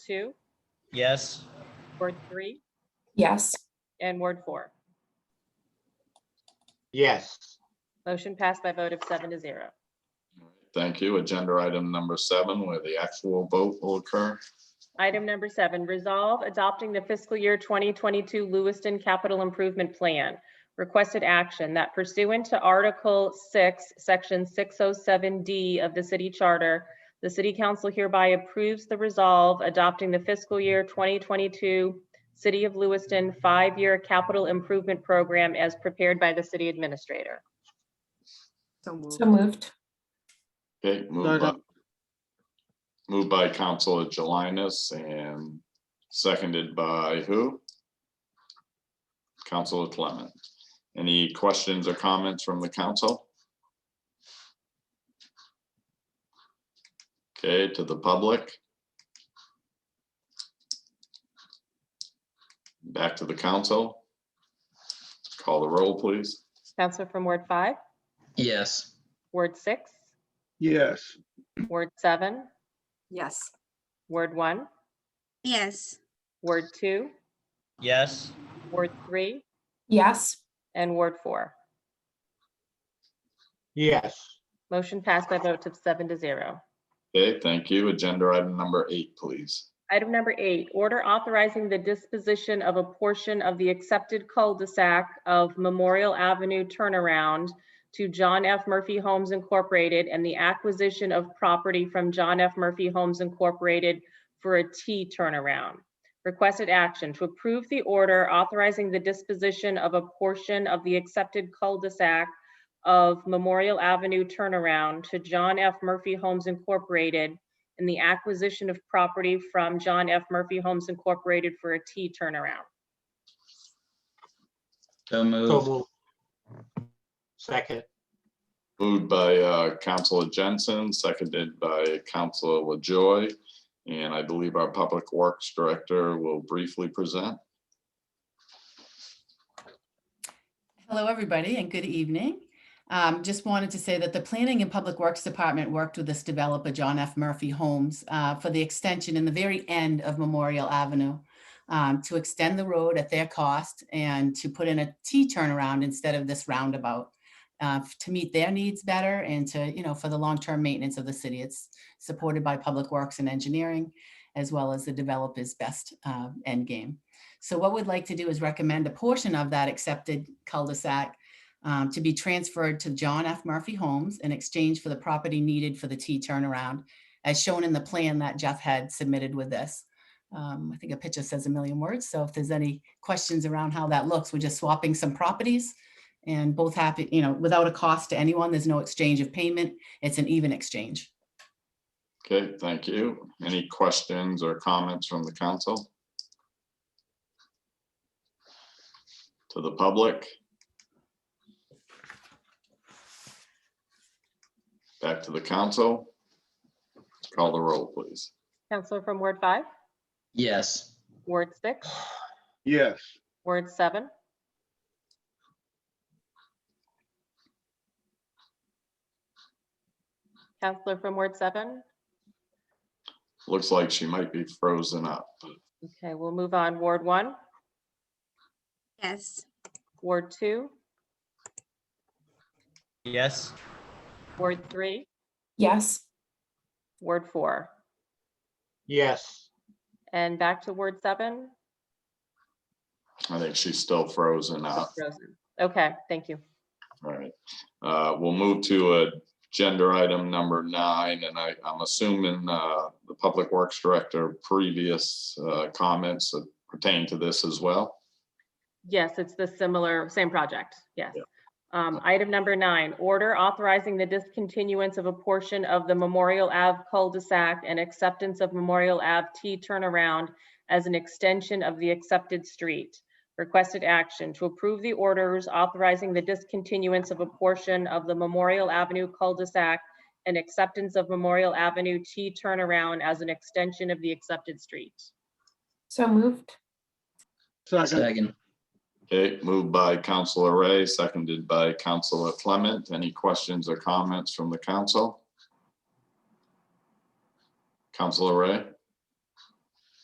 two, Yes. Ward three, Yes. and Ward four. Yes, Motion passed by vote of seven to zero. Thank you. Agenda item number seven, where the actual vote will occur. Item number seven, resolve adopting the fiscal year 2022 Lewiston Capital Improvement Plan. Requested action that pursuant to Article 6, Section 607D of the City Charter, the City Council hereby approves the resolve adopting the fiscal year 2022 City of Lewiston Five-Year Capital Improvement Program as prepared by the City Administrator. So moved. So moved. Okay, moved by, Second. moved by Council Jelinas and seconded by who? Council Clement. Any questions or comments from the council? Okay, to the public? Back to the council? Call the roll, please. Counselor from Ward 5, Yes. Ward 6, yes, Ward 7, Yes. Ward 1, yes, Ward 2, Yes. Ward 3, Yes. And Ward four. yes, Motion passed by vote of seven to zero. Okay, thank you. Agenda item number eight, please. Item number eight, order authorizing the disposition of a portion of the accepted cul-de-sac of Memorial Avenue turnaround to John F. Murphy Homes Incorporated and the acquisition of property from John F. Murphy Homes Incorporated for a T turnaround. Requested action to approve the order authorizing the disposition of a portion of the accepted cul-de-sac of Memorial Avenue turnaround to John F. Murphy Homes Incorporated in the acquisition of property from John F. Murphy Homes Incorporated for a T turnaround. So so moved. moved. Second, Moved by uh, Counselor Jensen, seconded by Counselor LaJoy. And I believe our Public Works Director will briefly present. Hello, everybody, and good evening. Um, Just wanted to say that the Planning and Public Works Department worked with this developer, John F. Murphy Homes, uh, for the extension in the very end of Memorial Avenue um, to extend the road at their cost and to put in a T turnaround instead of this roundabout uh, to meet their needs better and to, you know, for the long-term maintenance of the city. It's supported by Public Works and Engineering, as well as the developer's best uh, end game. So what we'd like to do is recommend a portion of that accepted cul-de-sac um, to be transferred to John F. Murphy Homes in exchange for the property needed for the T turnaround, as shown in the plan that Jeff had submitted with this. Um, I think a picture says a million words, so if there's any questions around how that looks, we're just swapping some properties and both happy, you know, without a cost to anyone, there's no exchange of payment, it's an even exchange. Okay, thank you. Any questions or comments from the council? To the public? Back to the council. Call the roll, please. Counselor from Ward five, Yes. Ward six, yes. Ward seven, Counselor from Ward seven. Looks like she might be frozen up. Okay, we'll move on. Ward one, yes, Ward two, Yes. Ward three, Yes. Ward four. yes, And back to Ward seven. I think she's still frozen up. Frozen. Okay, thank you. All right. Uh, We'll move to a gender item number nine, and I, I'm assuming uh, the Public Works Director previous uh, comments pertain to this as well. Yes, it's the similar, same project, yes. Yeah. Um, item number nine, order authorizing the discontinuance of a portion of the Memorial Ave cul-de-sac and acceptance of Memorial Ave T turnaround as an extension of the accepted street. Requested action to approve the orders authorizing the discontinuance of a portion of the Memorial Avenue cul-de-sac and acceptance of Memorial Avenue T turnaround as an extension of the accepted street. So moved. Second, Second. Okay, moved by Counselor Ray, seconded by Counselor Clement. Any questions or comments from the council? Counselor Ray?